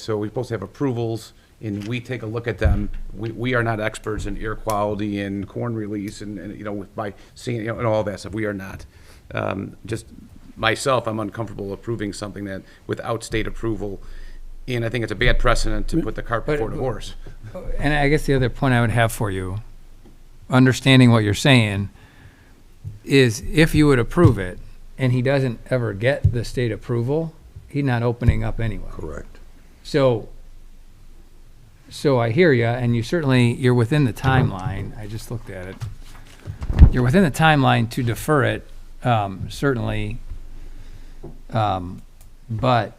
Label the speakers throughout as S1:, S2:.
S1: So we're supposed to have approvals, and we take a look at them. We, we are not experts in air quality and corn release and, and, you know, with, by seeing, you know, and all that stuff. We are not. Um, just myself, I'm uncomfortable approving something that, without state approval, and I think it's a bad precedent to put the cart
S2: But-
S1: before the horse.
S2: And I guess the other point I would have for you, understanding what you're saying, is if you would approve it and he doesn't ever get the state approval, he's not opening up anyway.
S3: Correct.
S2: So, so I hear you, and you certainly, you're within the timeline. I just looked at it. You're within the timeline to defer it, um, certainly. Um, but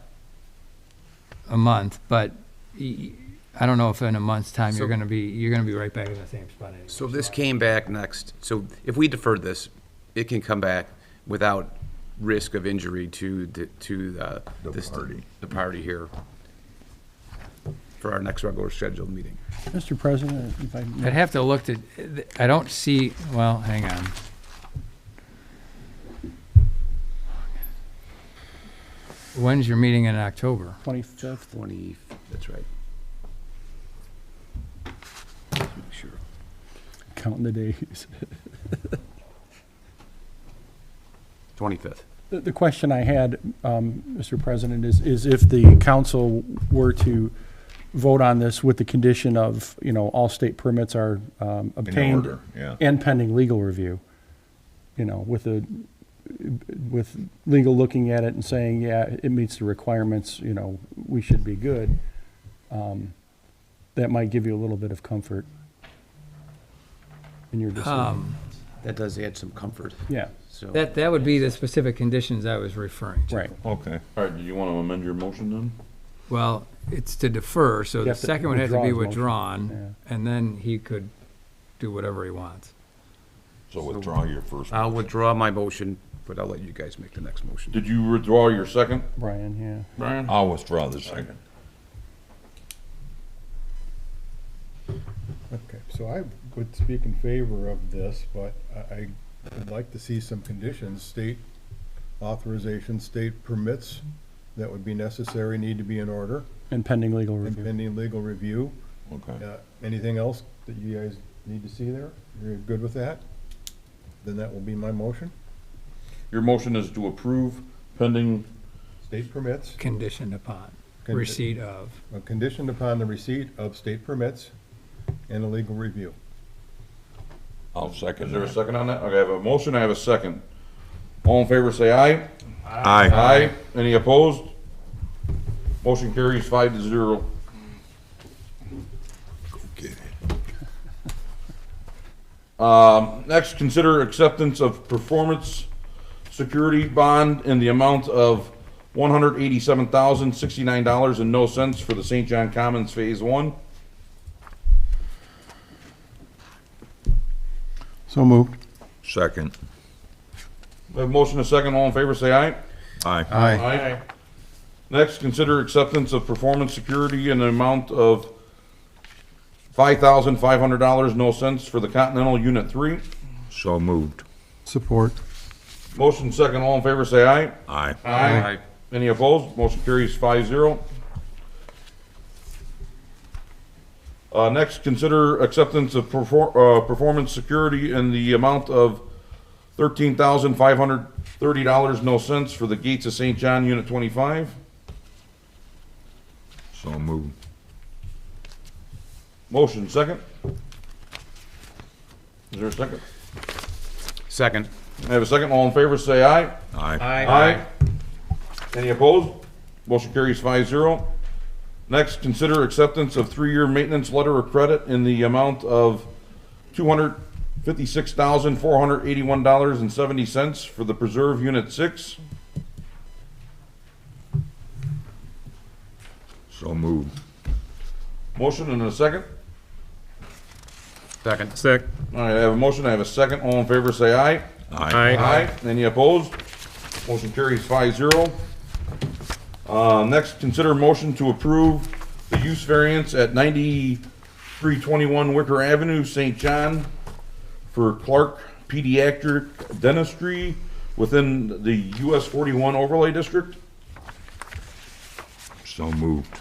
S2: a month, but y- I don't know if in a month's time you're
S1: So-
S2: gonna be, you're gonna be right back in the same spot anyway.
S1: So if this came back next, so if we deferred this, it can come back without risk of injury to, the- to the.
S3: The
S1: this-
S3: party.
S1: The party here for our next regular scheduled meeting.
S4: Mr. President, if I
S2: I'd
S4: may,
S2: have to look to, I don't see, well, hang on. When's your meeting in October?
S4: 25th,
S1: Twenty, that's right. Let's make sure.
S4: counting the days.
S1: Twenty-fifth.
S4: The, the question I had, um, Mr. President, is, is if the council were to vote on this with the condition of, you know, all state permits are um, obtained
S3: order, yeah.
S4: and pending legal review, you know, with the, with legal looking at it and saying, yeah, it meets the requirements, you know, we should be good, um, that might give you a little bit of comfort in your decision.
S2: Um,
S1: That does add some comfort,
S4: Yeah.
S1: so.
S2: That, that would be the specific conditions I was referring to.
S4: Right.
S3: Okay.
S5: All right, do you want to amend your motion then?
S2: Well, it's to defer, so
S4: You
S2: the
S4: have to
S2: second would have to be
S4: withdraw
S2: withdrawn, and then he could do whatever he wants.
S3: So withdraw your first.
S1: I'll withdraw my motion, but I'll let you guys make the next motion.
S5: Did you withdraw your second,
S4: Brian, yeah.
S5: Brian?
S3: I'll withdraw the second.
S6: Okay, so I would speak in favor of this, but I, I would like to see some conditions, state authorization, state permits that would be necessary, need to be in order,
S4: And pending legal
S6: and
S4: review.
S6: pending legal review.
S3: Okay.
S6: Uh, Anything else that you guys need to see there? You're good with that? Then that will be my motion,
S5: Your motion is to approve pending,
S6: state permits,
S2: Conditioned upon
S6: Condi-
S2: receipt of,
S6: uh, conditioned upon the receipt of state permits and a legal review.
S3: I'll
S5: is
S3: second
S5: there a
S3: that.
S5: second on that? Okay, I have a motion, I have a second. All in favor, say aye.
S3: Aye.
S5: Aye. Any opposed? Motion carries five to zero.
S3: Okay.
S5: Um, next, consider acceptance of performance security bond in the amount of one hundred eighty-seven thousand, sixty-nine dollars and no cents for the St. John Commons Phase One.
S6: So moved.
S3: Second.
S5: We have a motion, a second, all in favor, say aye.
S3: Aye.
S6: Aye.
S5: Aye. Next, consider acceptance of performance security in the amount of five thousand five hundred dollars, no cents for the Continental Unit Three.
S3: So moved.
S6: Support.
S5: Motion second, all in favor, say aye.
S3: Aye.
S1: Aye.
S5: Any opposed? Motion carries five zero. Uh, next, consider acceptance of perfor- uh, performance security in the amount of thirteen thousand five hundred thirty dollars, no cents for the Gates of St. John Unit Twenty-Five.
S3: So moved.
S5: Motion, second. Is there a second?
S1: Second.
S5: I have a second. All in favor, say aye.
S3: Aye.
S5: Aye. Any opposed? Motion carries five zero. Next, consider acceptance of three-year maintenance letter of credit in the amount of two hundred fifty-six thousand, four hundred eighty-one dollars and seventy cents for the Preserve Unit Six.
S3: So moved.
S5: Motion and a second.
S1: Second. Second.
S5: All right, I have a motion. I have a second. All in favor, say aye.
S3: Aye.
S5: Aye. Any opposed? Motion carries five zero. Uh, next, consider motion to approve the use variance at ninety-three twenty-one Wicker Avenue, St. John for Clark Pediatric Dentistry within the US forty-one overlay district.
S3: So moved.